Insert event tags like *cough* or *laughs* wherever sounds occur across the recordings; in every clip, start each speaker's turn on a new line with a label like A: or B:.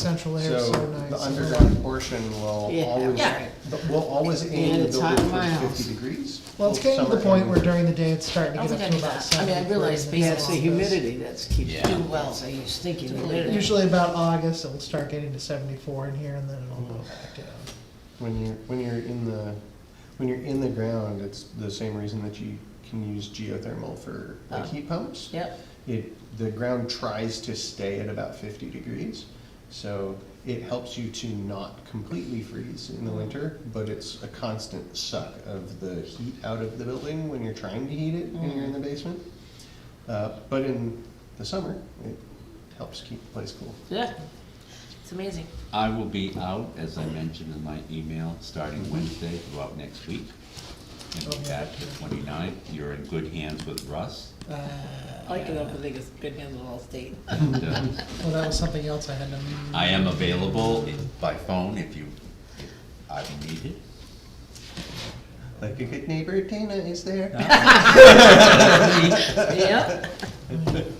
A: central air is
B: So
A: so nice.
B: the
A: I like
B: underground portion will
C: Yeah,
B: always,
C: yeah.
B: will always aim
C: And
B: to
C: it's
B: build
C: hot
B: it
C: in my
B: for
C: house.
B: fifty degrees.
A: Well, it's
B: both
A: getting to the
B: summer
A: point
B: and
A: where
B: winter.
A: during the day, it's starting
C: I
A: to get up
C: don't think
A: to
C: I knew
A: about
C: that. I mean,
A: seventy.
C: I realize
A: degrees.
C: basically it's the humidity that's keeps
D: Yeah.
C: too well, so you stink in humidity.
A: Usually about August, it'll start getting to seventy-four in here, and then it'll go back down.
B: When you're, when you're in the, when you're in the ground, it's the same reason that you can use geothermal for like
C: Oh.
B: heat pumps.
C: Yep,
B: It, the ground tries to stay at about fifty degrees, so it helps you to not completely freeze in the winter, but it's a constant suck of the heat out of the building when you're trying to heat it and you're in the
C: Mm-hmm.
B: basement. Uh, but in the summer, it helps keep the place cool.
C: yeah, it's amazing.
D: I will be out, as I mentioned in my email, starting Wednesday throughout next week. And be back the 29th. You're in good hands with Russ.
A: Uh,
C: I like it up, I think it's good handle all state.
D: And, uh,
A: Well, Oh, that was something else I had to.
D: I am available i- by phone if you, if I need it.
B: Like a good neighbor, Dana is there.
C: *laughs* Yep,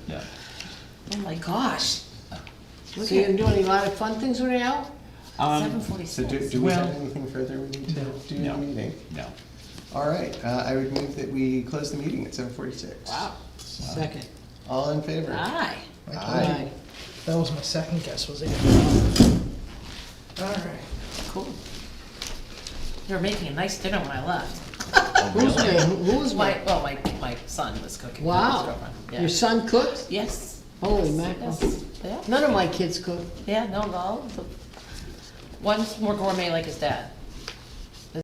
D: Yeah.
C: oh my gosh. So you can do any lot of fun things when you're out?
D: Um,
C: Seven
B: So do,
C: forty-six.
B: do we have
D: Well-
B: anything further we need to do in the
D: No.
B: meeting?
D: No.
B: All right, uh, I would move that we close the meeting at seven forty-six.
C: Wow, second,
B: All in favor?
C: aye.
B: Aye.
A: That was my second guess, was it? All right.
C: Cool. They were making a nice dinner when I left.
D: Oh,
E: Who's
D: really?
E: there? Who was
C: My,
E: there?
C: well, my, my son was cooking. with his
E: Wow,
C: girlfriend, yeah.
E: your son cooked?
C: Yes,
E: Holy mackerel.
C: yes, yeah,
E: None of my kids cook.
C: yeah, no, no. the- One's more gourmet like his dad.